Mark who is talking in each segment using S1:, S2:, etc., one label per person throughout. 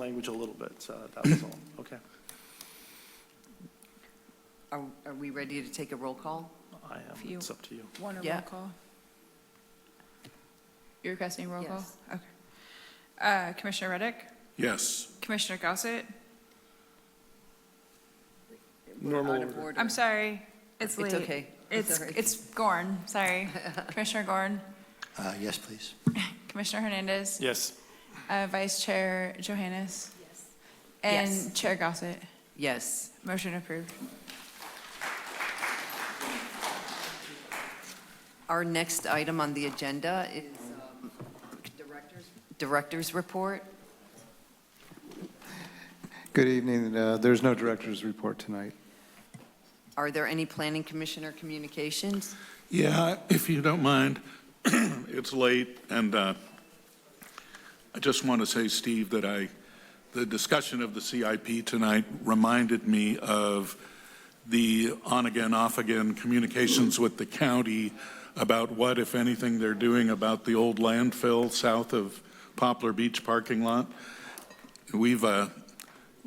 S1: language a little bit, so uh, that was all. Okay.
S2: Are, are we ready to take a roll call?
S1: I am,
S3: Few.
S1: it's up to you.
S3: One a
S2: Yeah.
S3: roll call? You're requesting roll call?
S2: Yes.
S3: Okay. Uh, Commissioner Reddick,
S4: Yes.
S3: Commissioner Gossett,
S1: Normal
S2: Out of
S1: order.
S2: order.
S3: I'm sorry,
S2: It's
S3: it's late.
S2: okay. It's
S3: It's,
S2: all right.
S3: it's Gorn, sorry. Commissioner Gorn,
S5: Uh, Yes, please.
S3: Commissioner Hernandez,
S1: Yes,
S3: uh, Vice Chair Johannes.
S2: Yes.
S3: And Chair Gossett.
S2: Yes.
S3: Motion approved.
S2: Our next item on the agenda is um, Director's, Director's Report.
S6: Good evening. Uh, There's no director's report tonight.
S2: Are there any Planning Commissioner communications?
S4: Yeah, if you don't mind, it's late, and uh, I just want to say, Steve, that I, the discussion of the CIP tonight reminded me of the on-again, off-again communications with the county about what, if anything, they're doing about the old landfill south of Poplar Beach parking lot. We've, uh,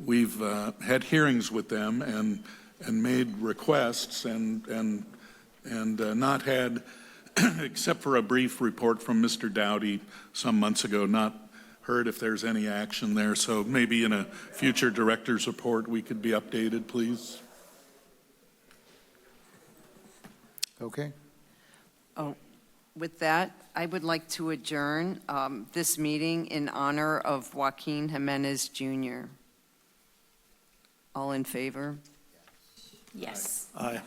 S4: we've uh, had hearings with them and, and made requests and, and, and uh, not had, except for a brief report from Mr. Dowdy some months ago, not heard if there's any action there. So maybe in a future director's report, we could be updated, please.
S6: Okay?
S2: With that, I would like to adjourn um, this meeting in honor of Joaquin Jimenez Jr. All in favor?
S3: Yes.
S1: aye.